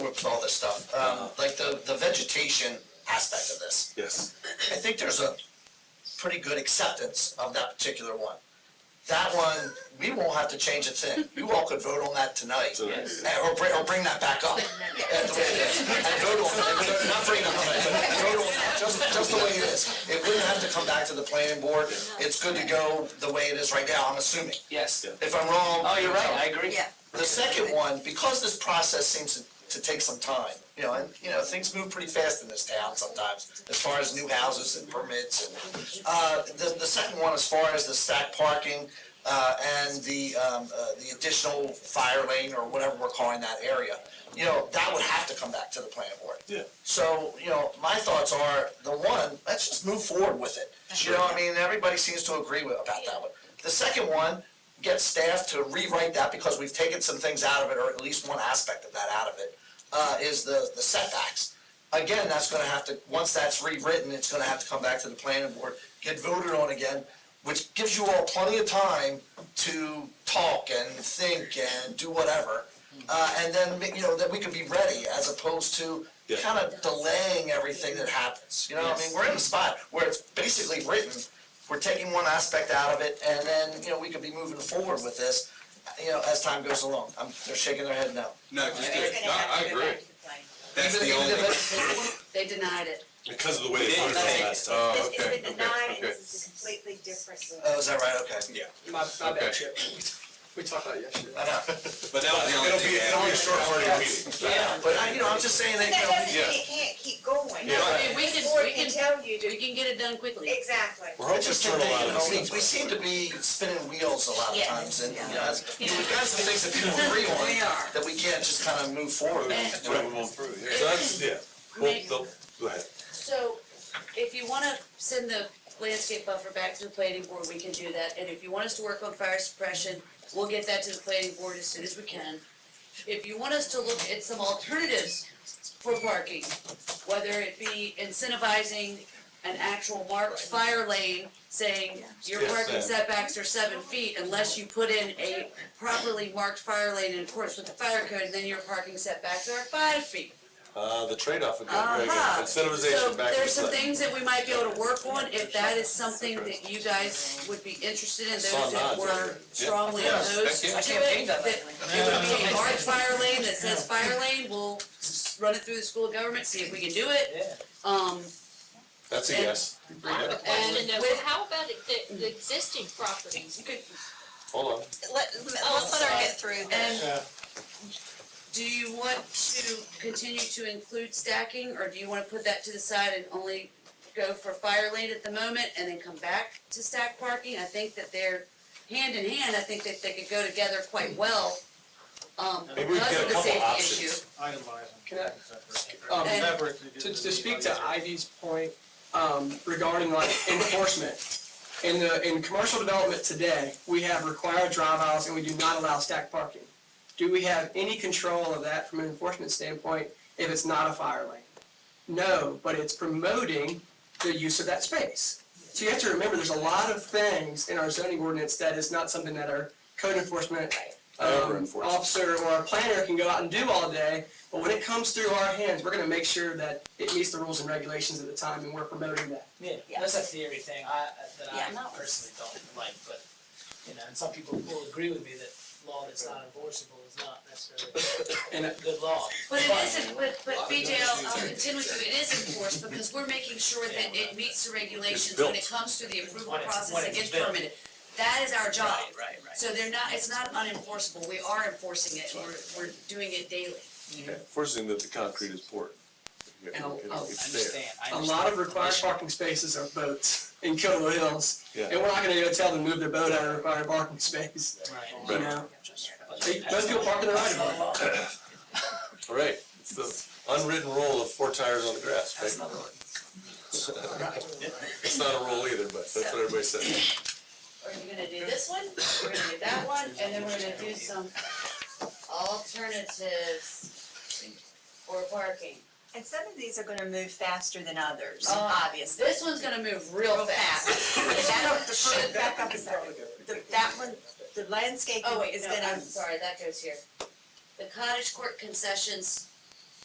groups, all this stuff, um, like the, the vegetation aspect of this. Yes. I think there's a pretty good acceptance of that particular one. That one, we won't have to change a thing. You all could vote on that tonight. Yes. And- Or bring, or bring that back up. And the way it is. And vote on it, not bring it up, but vote on it, just, just the way it is. It wouldn't have to come back to the planning board. It's good to go the way it is right now, I'm assuming. Yes. Yeah. If I'm wrong. Oh, you're right, I agree. Yeah, The second one, because this process seems to, to take some time, you know, and, you know, things move pretty fast in this town sometimes, as far as new houses and permits and, uh, the, the second one, as far as the stack parking, uh, and the, um, uh, the additional fire lane or whatever we're calling that area, you know, that would have to come back to the planning board. Yeah. So, you know, my thoughts are, the one, let's just move forward with it. You know, what I mean, everybody seems to agree with, about that one. The second one, get staff to rewrite that because we've taken some things out of it, or at least one aspect of that out of it, uh, is the, the setbacks. Again, that's gonna have to, once that's rewritten, it's gonna have to come back to the planning board, get voted on again, which gives you all plenty of time to talk and think and do whatever. Uh, and then, you know, that we could be ready as opposed to Yeah. kind of delaying everything that happens, you know, I mean, we're in a spot where it's basically written. We're taking one aspect out of it and then, you know, we could be moving forward with this, you know, as time goes along. I'm, they're shaking their head no. No, just, do it's it. gonna No, have I to go agree. back to the planning. That's Even- the even only, if it- They denied it. Because of the way they Yeah, funded okay. it last time. Oh, It's, it's okay, been denied, okay, and this is a completely different. Oh, is that right? Okay. yeah, My, my Okay. bad, Chip. We talked about it yesterday. I know. but that was the only It'll be, thing. I it'll be a added. short party meeting. Yeah, but I, you know, I'm just saying that, But you know. that doesn't yeah. mean it can't keep going. Yeah. I Right. mean, We This can- board we can can- tell you We to, can get it done quickly. exactly. We're I hoping to just turn think a that, lot of you know, we, this we stuff. seem to be spinning wheels a lot of Yes. times and, you know, as, you know, we've got some things that people agree on. We are. That we can't just kind of move forward. Yeah. with. Right, we won't approve, yeah. So that's, yeah, well, they'll, go ahead. So if you wanna send the landscape buffer back to the planning board, we can do that. And if you want us to work on fire suppression, we'll get that to the planning board as soon as we can. If you want us to look at some alternatives for parking, whether it be incentivizing an actual marked fire lane, saying your Yes, parking ma'am. setbacks are seven feet unless you put in a properly marked fire lane in accordance with the fire code, then your parking setbacks are five feet. Uh, the trade-off would be very good, Uh-huh. incentivization back So to the there's some play. things that we might be able to work on, if that is something that you guys would be interested in, Saw those that nods over were there. Yeah. strongly Yes, opposed to thank it. you. I can't paint that That it would be a marked fire lane that says fire lane, we'll s- run it through the school of government, see if we can do it. Yeah. Um, That's a and- yes, I have a question though, with- how about the, the existing properties? you could, hold on. Let, let's let her get through and do you want to continue to include stacking, or do you wanna put that to the side and only go for fire lane at the moment and then come back to stack parking? I think that they're hand in hand, I think that they could go together quite well, um, Maybe we because get a of the couple safety options. issue. Can I- Um, And- to, to speak to Ivy's point, um, regarding like enforcement. In the, in commercial development today, we have required drive aisles and we do not allow stacked parking. Do we have any control of that from an enforcement standpoint if it's not a fire lane? No, but it's promoting the use of that space. So you have to remember, there's a lot of things in our zoning ordinance that is not something that our code enforcement Ever um, enforced. officer or our planner can go out and do all day, but when it comes through our hands, we're gonna make sure that it meets the rules and regulations at the time, and we're promoting that. Yeah, Yeah. that's a theory thing, I, that Yeah, I no. personally don't like, but, you know, and some people will agree with me that law that's not enforceable is not necessarily And uh, a good law. But it isn't, but, but BJ, I'll, I'll contend with you, um, it is enforced, because we're making sure that it meets the regulations when it comes to the approval When it's- process when and it's gets built. permitted. That is our job. Right, right, right. So they're not, it's not unenforceable, we are enforcing it, we're, we're doing it daily. Yeah, Forcing that the concrete is poured. Yeah, And I'll- it's- I'll it's I there. understand, I a understand. lot of required parking spaces are boats in Kilo Hills, and Yeah, we're not gonna go tell them to move their boat out of required parking space, Right. you Right. know? But They- that's Those people not- park in the right that's of not way. law. all right, it's the unwritten rule of four tires on the grass, right? That's not law. It's not a rule either, but that's what everybody says. Are you gonna do this one, we're gonna do that one, and then we're gonna do some alternatives for parking. And some of these are gonna move faster than others, Oh. obviously. This one's gonna move real fast. That, the first, back up a second. The- that one, the landscaping Oh, wait, is no, gonna. I'm sorry, that goes here. The cottage court concessions